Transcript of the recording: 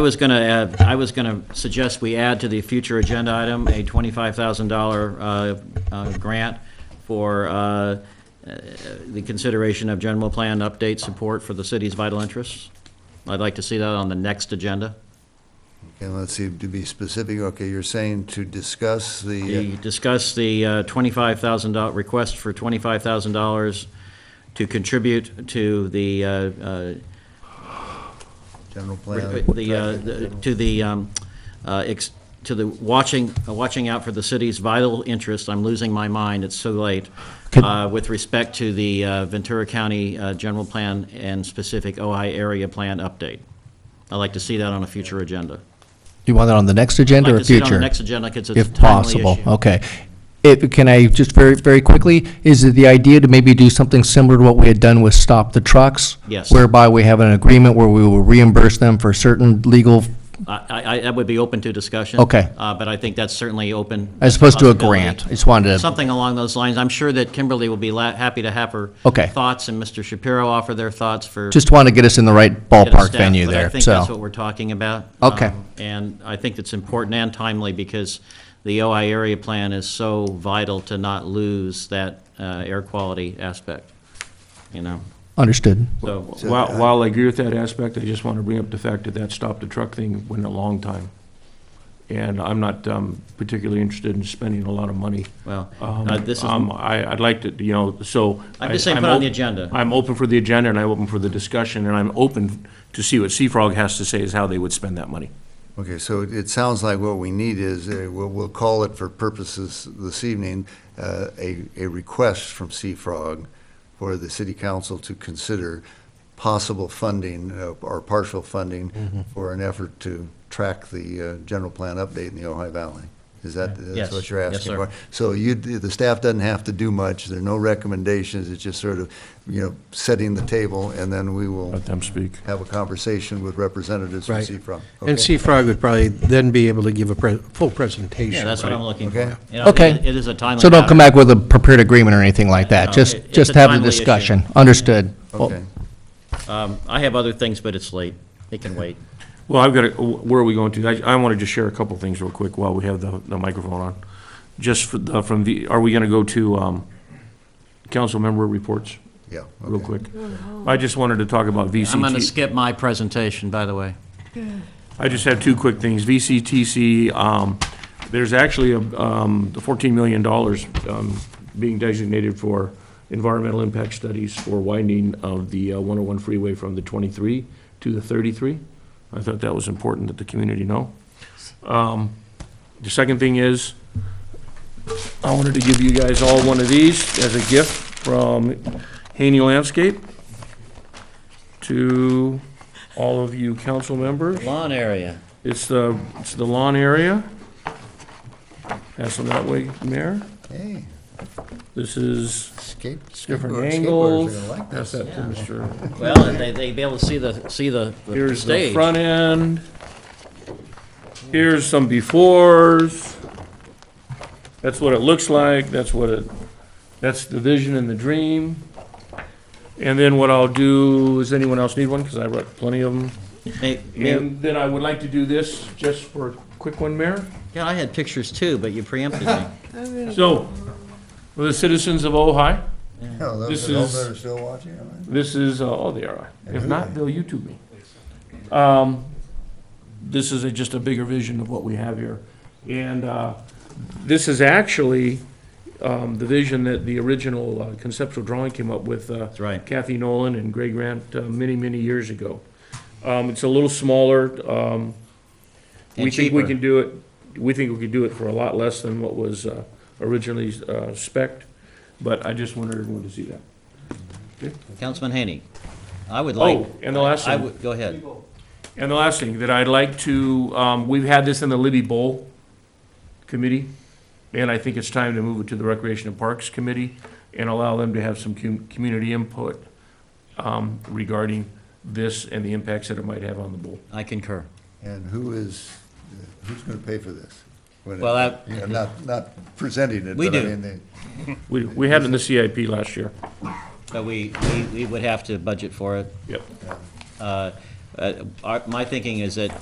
I was going to add, I was going to suggest we add to the future agenda item a $25,000 uh, uh, grant for uh, uh, the consideration of general plan update support for the city's vital interests. I'd like to see that on the next agenda. And let's see, to be specific, okay, you're saying to discuss the, We discussed the uh, $25,000, request for $25,000 to contribute to the, uh, uh, uh, general plan. the, uh, the- to the, um, uh, ex- to the watching, uh, watching out for the city's vital interest, I'm losing my mind, it's so late, uh, with respect to the uh, Ventura County uh, General Plan and specific OI Area Plan update. I'd like to see that on a future agenda. You want that on the next agenda I'd or like to see it future? on the next agenda, because it's a if timely possible. issue. Uh, Okay. It, can I, just very, very quickly, is it the idea to maybe do something similar to what we had done with Stop the Trucks? Yes. Whereby we have an agreement where we will reimburse them for certain legal, I, I, I- that would be open to discussion. Okay. Uh, But I think that's certainly open. as opposed to a possibility. grant? I just wanted to, Something along those lines. I'm sure that Kimberly will be la- happy to have her Okay. thoughts, and Mr. Shapiro offer their thoughts for just want to get us in the right get a ballpark staff, venue but there, so. I think that's what we're talking about. Okay. Um, And I think it's important and timely because the OI area plan is so vital to not lose that uh, air quality aspect, you know? Understood. So, So, While, uh, while I agree with that aspect, I just want to bring up the fact that that stop the truck thing went a long time. And I'm not um, particularly interested in spending a lot of money. well, Um, uh, this is, um, I, I'd like to, you know, so. I'm I- just saying put it on the op- agenda. I'm open for the agenda and I'm open for the discussion and I'm open to see what Seafrog has to say is how they would spend that money. Okay, so it- it sounds like what we need is, uh, we'll, we'll call it for purposes this evening, uh, a, a request from Seafrog for the city council to consider possible funding uh, or partial funding for an effort to track the uh, general plan update in the Ojai Valley. Is that, Yes. that's what you're Yes, asking sir. for? So you, the staff doesn't have to do much, there are no recommendations, it's just sort of, you know, setting the table, and then we will Let them speak. have a conversation with representatives from Right. Seafrog. And Okay? Seafrog would probably then be able to give a pre- full yeah, presentation. that's what I'm looking for. Okay. You know, it- Okay. It is a timely. So don't come matter. back with a prepared agreement or anything like No, that. Just, it- it's a just have the timely issue. discussion. Understood. Oh. Well, Okay. Um, I have other things, but it's late. It can wait. Well, I've got, to- where are we going to? I, I want to just share a couple things real quick while we have the, the microphone on. Just for the- from the, are we going to go to um, council member reports Yeah. real okay. quick? I just wanted to talk about VCT. I'm going to skip my presentation, by the way. I just have two quick things. VCTC, um, there's actually a, um, the fourteen million dollars, um, being designated for environmental impact studies for widening of the one oh one freeway from the twenty-three to the thirty-three. I thought that was important that the community know. Um, the second thing is, I wanted to give you guys all one of these as a gift from Haney Landscape to all of you council members. Lawn area. It's the, it's the lawn area. Pass them that way, Mayor. Hey, This is skate. different skateboard- skateboarders are angles. gonna like Pass this. that to Mr. Well, and they, they'd be able to see the, see the the Here's the stage. front end. Here's some befores. That's what it looks like, that's what it, that's the vision and the dream. And then what I'll do, does anyone else need one? Because I wrote plenty of them. May- may- And then I would like to do this just for a quick one, Mayor. Yeah, I had pictures too, but you preempted me. So, for the citizens of Ojai, Oh, those This are- those is- that are still watching. all right. This is, uh, oh, they are. If not, they'll YouTube me. Um, This is a- just a bigger vision of what we have here. And uh, this is actually um, the vision that the original uh, conceptual drawing came up with. uh, That's right. Kathy Nolan and Greg Grant uh, many, many years ago. Um, It's a little smaller. And um, We think we cheaper. can do it, we think we could do it for a lot less than what was uh, originally uh, spec'd, but I just wanted everyone to see that. Councilman Haney, I would like. Oh, and the last I thing. would, go ahead. And the last thing that I'd like to, um, we've had this in the Libby Bowl Committee, and I think it's time to move it to the Recreation and Parks Committee and allow them to have some com- community input, um, regarding this and the impacts that it might have on the bowl. I concur. And who is, who's going to pay for this? When it- Well, that- you know, Not, not presenting it. We but I do. mean, they- We, we had it in the CIP last year. But we, we, we would have to budget for it. Yep. Uh, uh, our- My thinking is that